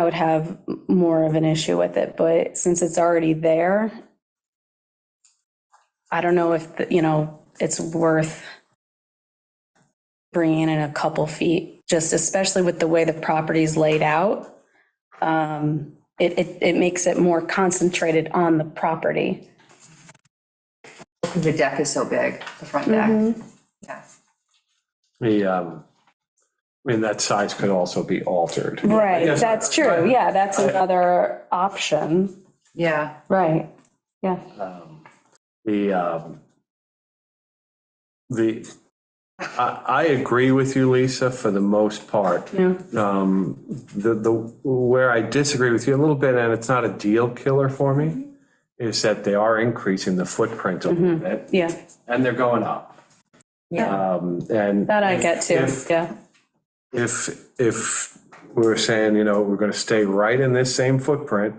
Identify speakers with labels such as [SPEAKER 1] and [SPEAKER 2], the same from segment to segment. [SPEAKER 1] I would have m- more of an issue with it, but since it's already there, I don't know if, the- you know, it's worth bringing in a couple feet, just especially with the way the property's laid out. Um, It, it, it makes it more concentrated on the property.
[SPEAKER 2] Because the deck is so big, the front
[SPEAKER 1] Mm-hmm.
[SPEAKER 2] deck. Yeah.
[SPEAKER 3] The, um, I mean, that size could also be altered.
[SPEAKER 1] Right,
[SPEAKER 3] Yes.
[SPEAKER 1] that's true. Yeah, that's another option.
[SPEAKER 2] Yeah,
[SPEAKER 1] Right, yeah.
[SPEAKER 3] Um, The, um, the, I, I agree with you, Lisa, for the most part.
[SPEAKER 1] Yeah.
[SPEAKER 3] Um, the, the, where I disagree with you a little bit, and it's not a deal killer for me,
[SPEAKER 1] Mm-hmm.
[SPEAKER 3] is that they are increasing the footprint a little bit,
[SPEAKER 1] Yeah,
[SPEAKER 3] and they're going up.
[SPEAKER 2] Yeah.
[SPEAKER 3] Um, and.
[SPEAKER 1] that I get too,
[SPEAKER 3] If-
[SPEAKER 1] yeah.
[SPEAKER 3] if, if we were saying, you know, we're gonna stay right in this same footprint,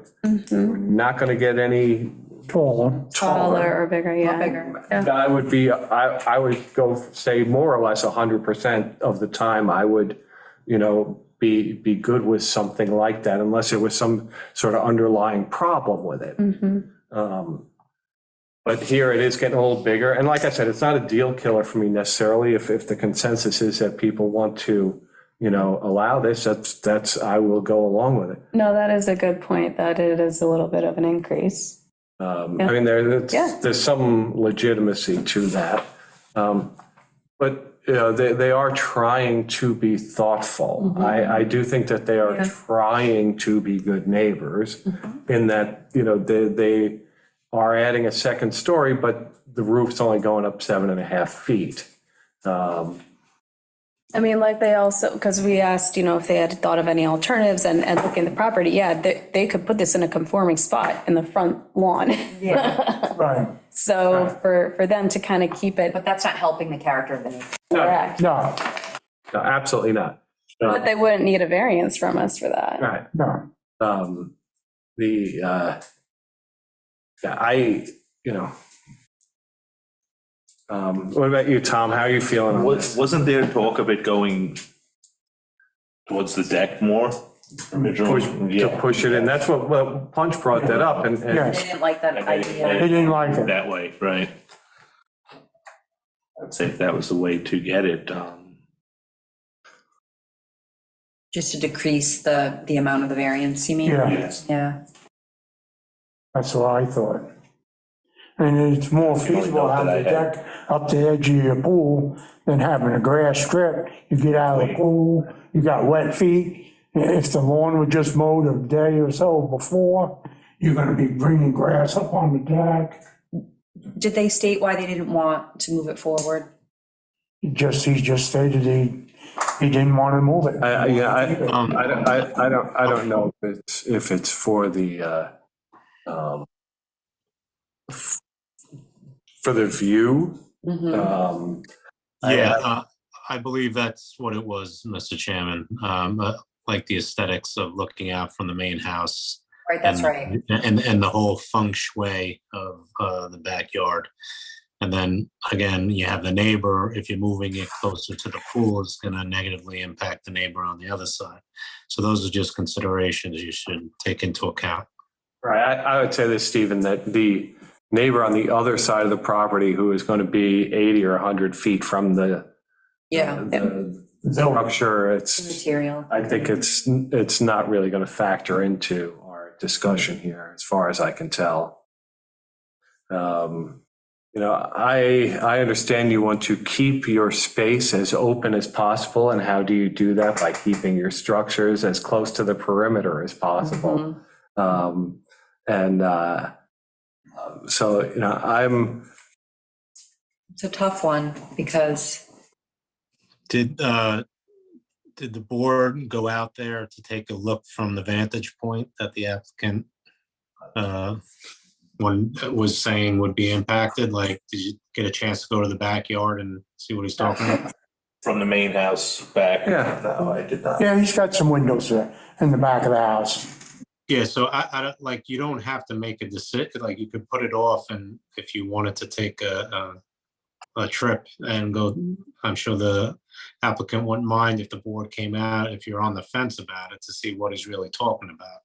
[SPEAKER 3] we're not gonna get any
[SPEAKER 4] Taller.
[SPEAKER 3] taller.
[SPEAKER 1] or bigger, yeah.
[SPEAKER 2] bigger.
[SPEAKER 3] I would be, I, I would go say more or less hundred percent of the time, I would, you know, be, be good with something like that unless there was some sort of underlying problem with it. Um, But here it is getting a little bigger, and like I said, it's not a deal killer for me necessarily. If, if the consensus is that people want to, you know, allow this, that's, that's, I will go along with it.
[SPEAKER 1] No, that is a good point, that it is a little bit of an increase.
[SPEAKER 3] Um,
[SPEAKER 1] Yeah.
[SPEAKER 3] I mean, there,
[SPEAKER 1] Yeah.
[SPEAKER 3] that's- there's some legitimacy to that. Um, But, you know, they, they are trying to be thoughtful.
[SPEAKER 1] Mm-hmm.
[SPEAKER 3] I, I do think that they are trying to be good neighbors
[SPEAKER 1] Mm-hmm.
[SPEAKER 3] in that, you know, they, they are adding a second story, but the roof's only going up seven and a half feet. Um,
[SPEAKER 1] I mean, like they also, because we asked, you know, if they had thought of any alternatives and, and looking at the property, yeah, they, they could put this in a conforming spot in the front lawn.
[SPEAKER 4] Right,
[SPEAKER 1] So for, for them to kind of keep it
[SPEAKER 2] But that's not helping the character of the neighborhood.
[SPEAKER 1] correct.
[SPEAKER 4] no,
[SPEAKER 3] no, Absolutely not.
[SPEAKER 1] But they wouldn't need a variance from us for that.
[SPEAKER 3] Right.
[SPEAKER 4] no.
[SPEAKER 3] um, the, uh, yeah, I, you know. Um, what about you, Tom? How are you feeling on
[SPEAKER 5] Was,
[SPEAKER 3] this?
[SPEAKER 5] wasn't there talk of it going towards the deck more?
[SPEAKER 3] Push, to
[SPEAKER 5] Originally, yeah,
[SPEAKER 3] push it in. That's what, well, Punch brought that up and, and,
[SPEAKER 2] They didn't like that
[SPEAKER 5] Okay.
[SPEAKER 2] idea.
[SPEAKER 4] He didn't like it.
[SPEAKER 5] that way, right? I'd say if that was the way to get it, um,
[SPEAKER 2] Just to decrease the, the amount of the variance, you mean?
[SPEAKER 4] Yeah,
[SPEAKER 5] yes.
[SPEAKER 2] Yeah.
[SPEAKER 4] that's what I thought. And it's more feasible
[SPEAKER 5] thought
[SPEAKER 4] having
[SPEAKER 5] that
[SPEAKER 4] the
[SPEAKER 5] I had-
[SPEAKER 4] deck up the edge of your pool than having a grass strip. You get out of the pool, you got wet feet. If the lawn was just mowed a day or so before, you're gonna be bringing grass up on the deck.
[SPEAKER 2] Did they state why they didn't want to move it forward?
[SPEAKER 4] He Just, he just stated he, he didn't want to move it.
[SPEAKER 3] I, I, yeah, I, I, don't- I, I don't, I don't know if it's, if it's for the, uh, um, for the view,
[SPEAKER 4] Mm-hmm.
[SPEAKER 2] Mhm.
[SPEAKER 3] um,
[SPEAKER 6] Yeah, uh, I believe that's what it was, Mr. Chairman. Um, uh, Like the aesthetics of looking out from the main house.
[SPEAKER 2] Right, that's
[SPEAKER 6] and-
[SPEAKER 2] right.
[SPEAKER 6] And, and the whole feng shui of uh, the backyard. And then again, you have the neighbor, if you're moving it closer to the pool, it's going to negatively impact the neighbor on the other side. So those are just considerations you should take into account.
[SPEAKER 3] Right, I, I would say this, Stephen, that the neighbor on the other side of the property who is gonna be eighty or hundred feet from the. uh,
[SPEAKER 2] Yeah.
[SPEAKER 3] the
[SPEAKER 4] So,
[SPEAKER 3] Structure, it's,
[SPEAKER 2] Material.
[SPEAKER 3] I think it's, it's not really gonna factor into our discussion here, as far as I can tell. Um, You know, I, I understand you want to keep your space as open as possible, and how do you do that? By keeping your structures as close to the perimeter as possible.
[SPEAKER 2] Mhm.
[SPEAKER 3] Um, and uh, um, so, you know, I'm,
[SPEAKER 2] It's a tough one because,
[SPEAKER 6] Did, uh, did the board go out there to take a look from the vantage point that the applicant uh, one uh, was saying would be impacted? Like, did you get a chance to go to the backyard and see what he's talking about?
[SPEAKER 5] From the main house back.
[SPEAKER 3] Yeah.
[SPEAKER 5] No, I did not.
[SPEAKER 4] yeah, he's got some windows there in the back of the house.
[SPEAKER 6] Yeah, so I, I don't, like, you don't have to make a decision, like, you could put it off and if you wanted to take a, a trip and go, I'm sure the applicant wouldn't mind if the board came out, if you're on the fence about it, to see what he's really talking about.